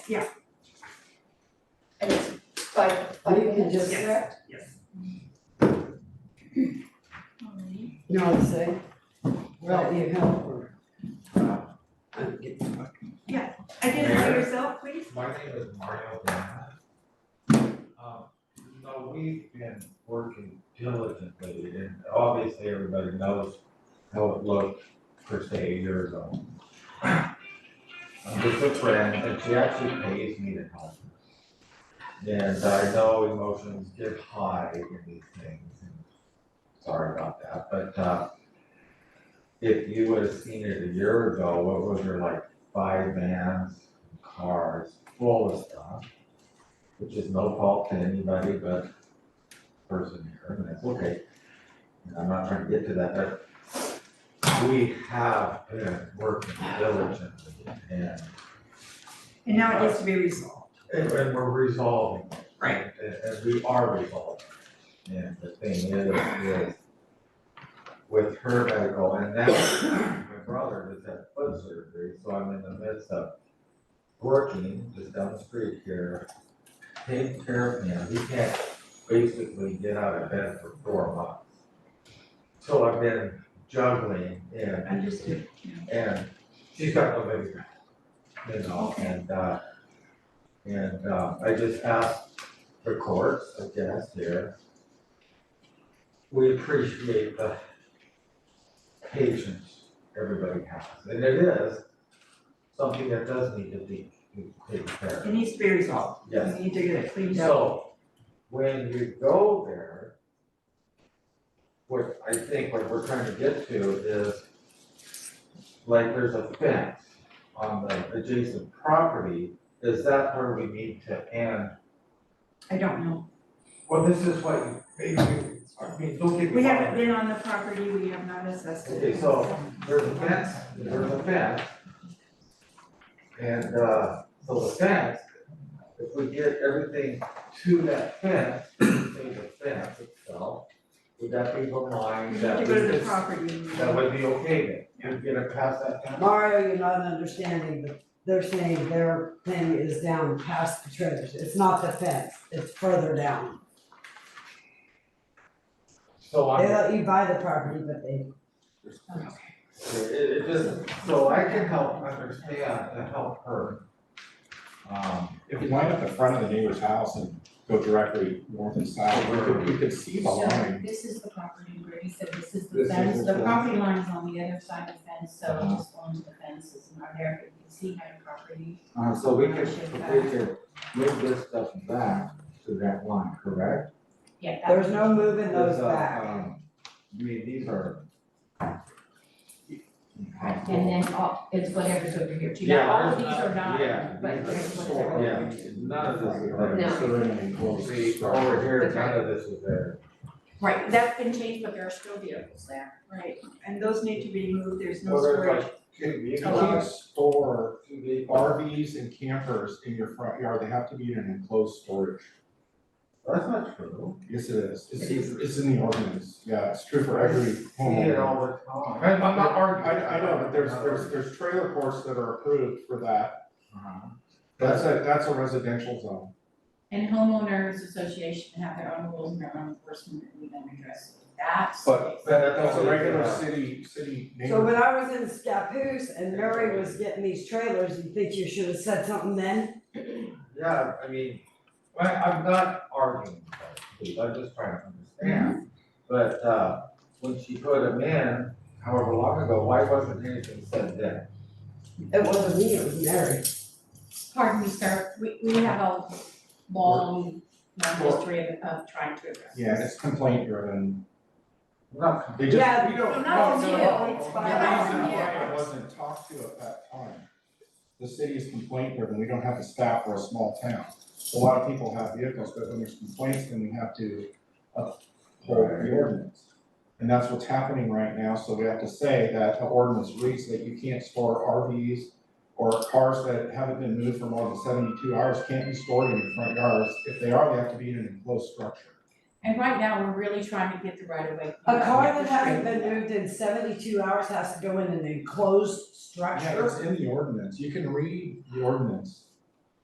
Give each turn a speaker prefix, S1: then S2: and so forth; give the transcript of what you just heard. S1: Yeah.
S2: And it's five, five
S3: We can
S2: minutes,
S3: just-
S2: correct?
S1: Yes.
S3: No, I'd say, well, you help her. I'm getting fucked.
S1: Identify yourself, please.
S4: My name is Mario Lana. Um, you know, we've been working diligently and obviously everybody knows how it looked per se a year ago. Um, I'm just a friend and she actually pays me to help. her. And I know emotions get high in these things and sorry about that, but uh if you would have seen it a year ago, what was there like five vans, cars full of stuff, which is no fault to anybody but the person here, and that's okay. And I'm not trying to get to that, but we have been working diligently and,
S1: And now it needs to be resolved.
S4: and and we're resolving. it.
S1: Right.
S4: And, and we are resolving. it. And the thing is, is with her medical, and now my brother just had foot surgery, so I'm in the midst of working just down the street here, taking care of him, he can't basically get out of bed for four months. So I've been juggling and
S1: Understood.
S4: and she's got no baby ground, you know, and, uh, and, uh, I just asked the courts, I guess, here. We appreciate the patience everybody has, and it is something that does need to be, be taken care
S1: It
S4: of,
S1: needs to be resolved.
S4: yes.
S1: We need to get it cleaned up.
S4: So, when you go there, what I think what we're trying to get to is, like, there's a fence on the adjacent property, is that where we need to end?
S1: I don't know.
S4: Well, this is what, you- maybe, I mean, don't get
S1: We
S4: me wrong.
S1: haven't been on the property, we have not assessed it.
S4: Okay, so there's a fence, there's a fence. And, uh, so the fence, if we get everything to that fence, say the fence itself, would that be the
S1: We
S4: line
S1: need
S4: that
S1: to
S4: we
S1: go to the
S4: could-
S1: property.
S4: that would be okay then, we'd get it past that fence?
S3: Mario, you're not understanding, but they're saying their thing is down past the trailers, it's not the fence, it's further down.
S4: So
S3: They
S4: I'm,
S3: let you buy the property, but they,
S4: it, it just, so I can help understand and help her. Um,
S5: If you line up the front of the neighbor's house and go directly north and south, you could, you could see the
S6: So
S5: line.
S6: this is the property where he said this is
S4: This
S6: the
S4: is
S6: fence,
S4: the
S6: the property line is on the other side of the fence, so
S5: Uh-huh.
S6: just onto the fence is not there, but you can see how the property.
S4: Uh, so we could, if we could move this stuff back to that line, correct?
S6: Yeah, that
S3: there's no moving those
S4: Because, uh,
S3: back.
S4: um, I mean, these are.
S6: And then all, it's whatever's over here too,
S4: Yeah,
S6: now all of
S4: there's
S6: these are not,
S4: yeah,
S6: but
S4: these are
S6: here's what's
S5: sort
S6: over here.
S4: Yeah, none of this is
S5: Right,
S4: there.
S5: considering an enclosed
S4: See,
S5: structure.
S4: over here, none of this is there.
S6: Right, that's been changed, but there are still vehicles there.
S1: Right, and those need to be moved, there's no
S4: Well, there's
S1: storage.
S4: like two
S5: You can't
S4: vehicles,
S5: store
S4: two vehicles.
S5: RVs and campers in your front yard, they have to be in an enclosed storage.
S4: That's not true.
S5: Yes, it is, it's, it's in the ordinance, yeah, it's true for every
S4: See it
S5: homeowner.
S4: all the time.
S5: I'm, I'm not arguing, I, I know, but there's, there's, there's trailer courts that are approved for that,
S4: Uh-huh.
S5: that's a, that's a residential zone.
S6: And homeowners association have their own rules and their own enforcement that we then address that.
S5: But
S4: But
S5: that's a regular
S4: that's-
S5: city, city
S3: So
S5: neighborhood.
S3: when I was in Scappoose and Mary was getting these trailers, you think you should have said something then?
S4: Yeah, I mean, I, I'm not arguing with that, please, I'm just trying to understand. But, uh, when she put him in, however long ago, why wasn't anything said then?
S3: It wasn't me, it was Mary.
S6: Pardon me, sir, we, we have a long, long history of, of trying to address this.
S5: Yeah, it's complaint driven.
S4: Not,
S5: They just,
S3: Yeah,
S5: we don't.
S6: not
S5: no,
S6: on
S5: no,
S6: you,
S5: no,
S6: it's
S5: no,
S6: by
S5: no,
S6: us,
S5: no, no,
S6: yeah.
S5: It wasn't talked to at that time. The city is complaint driven, we don't have the staff, we're a small town. A lot of people have vehicles, but when there's complaints, then we have to uphold the ordinance. And that's what's happening right now, so we have to say that the ordinance reads that you can't store RVs or cars that haven't been moved for more than seventy-two hours can't be stored in your front yards. If they are, they have to be in an enclosed structure.
S6: And right now, we're really trying to get the right of way.
S3: a car that hasn't been moved in seventy-two hours has to go in an enclosed
S5: Yeah,
S3: structure.
S5: it's in the ordinance, you can read the ordinance.